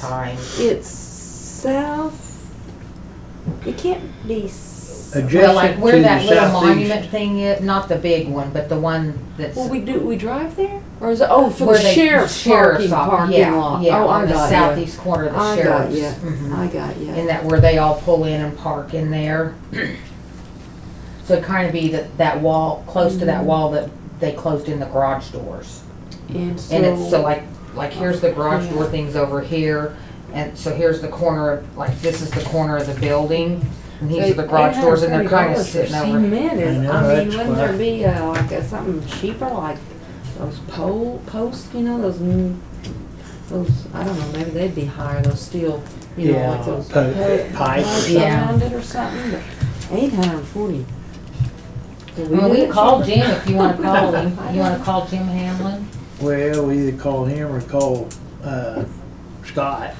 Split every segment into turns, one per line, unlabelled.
sign?
It's south, it can't be, s-
Well, like
Adjacent to
where
the
that little
southeast.
monument thing is, not the big one, but the one that's.
well, we do, we drive there? Or is it, oh, for
where
the
they-
sheriff's parking,
sheriff's off-
parking
yeah,
lot?
Yeah,
Oh,
on
I
the
got you.
southeast corner of the
I got
sheriff's.
you.
Mhm.
I got you.
And that where they all pull in and park in there. So it'd kind of be that, that wall, close to that
Mm-hmm.
wall that they closed in the garage doors.
And
And it's, so
so,
like, like here's the garage door
Yeah.
things over here, and so here's the corner of, like, this is the corner of the building, and these are the garage doors, and they're kinda
$840 for
sitting over.
Cement
I
is,
know,
I mean,
that's
wouldn't there
why.
be, uh, like, uh, something cheaper, like those pole, posts, you know, those, mm, those, I don't know, maybe they'd be higher, those steel, you know,
Yeah,
like those.
po- pipe.
Yeah.
Around it or something, but eight hundred and forty.
I mean, we can call Jim if you wanna call him, you wanna call Jim Hamlin?
Well, we either call him or call, uh, Scott.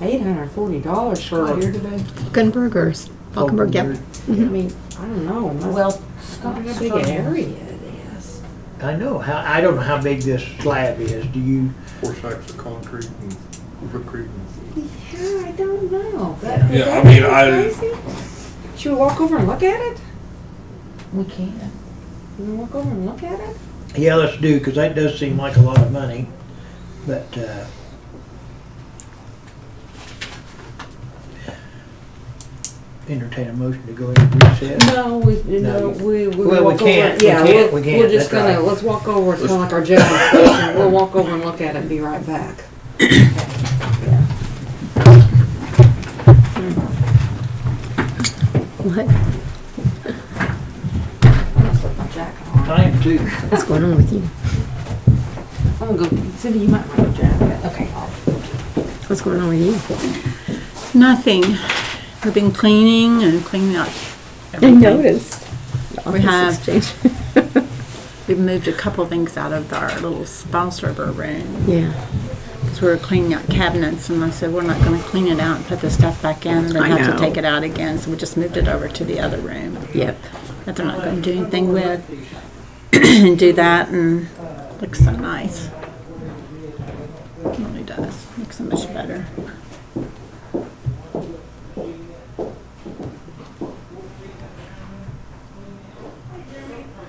Eight hundred and forty dollars for,
Scott
I
here today?
Falkenbergers. Falkenberg, yep.
mean, I don't know. must-
Well,
I
Scott,
wonder how big
Scott,
an area it is.
I know, how, I don't know how big this slab is, do you?
four stacks of concrete and concrete.
Yeah, I don't know. That, would
Yeah, I
that
mean,
be
I-
crazy? Should we walk over and look at it?
we can.
You wanna walk over and look at it?
Yeah, let's do, cause that does seem like a lot of money, but, uh, entertain a motion to go into recess.
No, we,
No,
no,
you-
we, we
Well, we
walk over.
can't, we
Yeah,
can't,
we'll-
we can't,
We're just
that's
gonna,
right.
let's walk over, it's kinda like our general session, we'll walk over and look at it and be right back.
What?
I'm gonna put my jacket on.
Time to.
What's going on with you?
I'm gonna go, Cindy, you might want a jacket. Okay.
What's going on with you?
Nothing. I've been cleaning and cleaning up. everything. We have- We've moved a couple things out of our little spa server room
Yeah.
because we were cleaning out cabinets, and I said we're not going to clean it out and put the stuff back in, and then
I
have
know.
to take it out again. So we just moved it over to the other room
Yep.
that they're not going to do anything with, and do that, and looks so nice. It really does. Looks so much better.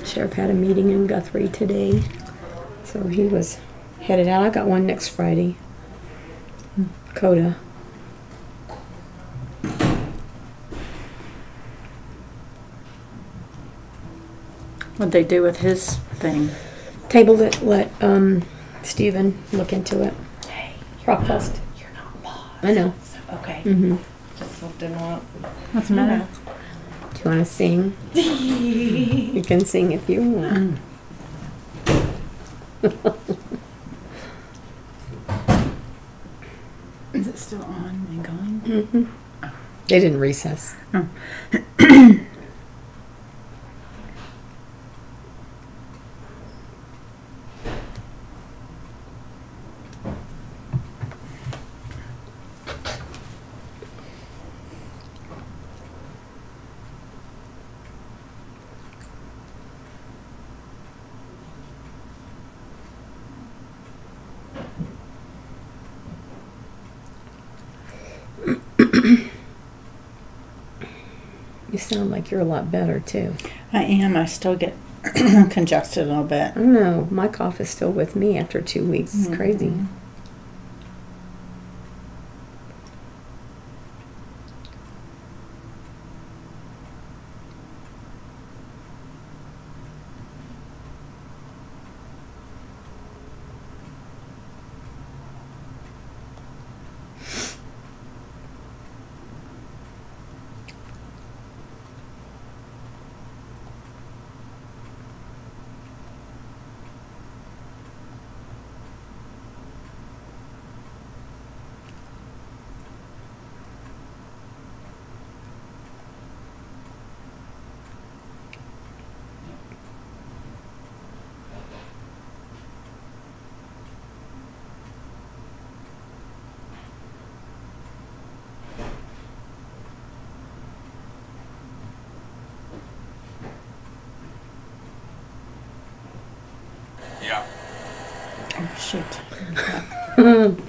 Sheriff had a meeting in Guthrie today, so he was headed out. I got one next Friday. Coda.
What'd they do with his thing?
Tabled it, let um, Stephen look into it. Hey. Rockfest.
You're not paused.
I know.
Okay.
Mm-hmm.
Just looked in one.
What's the matter?
Do you want to sing? you can sing if you want.
Is it still on and going?
Mm-hmm. They didn't recess. You sound like you're a lot better too.
I am. I still get congested a little bit.
I don't know. My cough is still with me after two weeks. It's crazy.
Yeah.
Oh, shoot.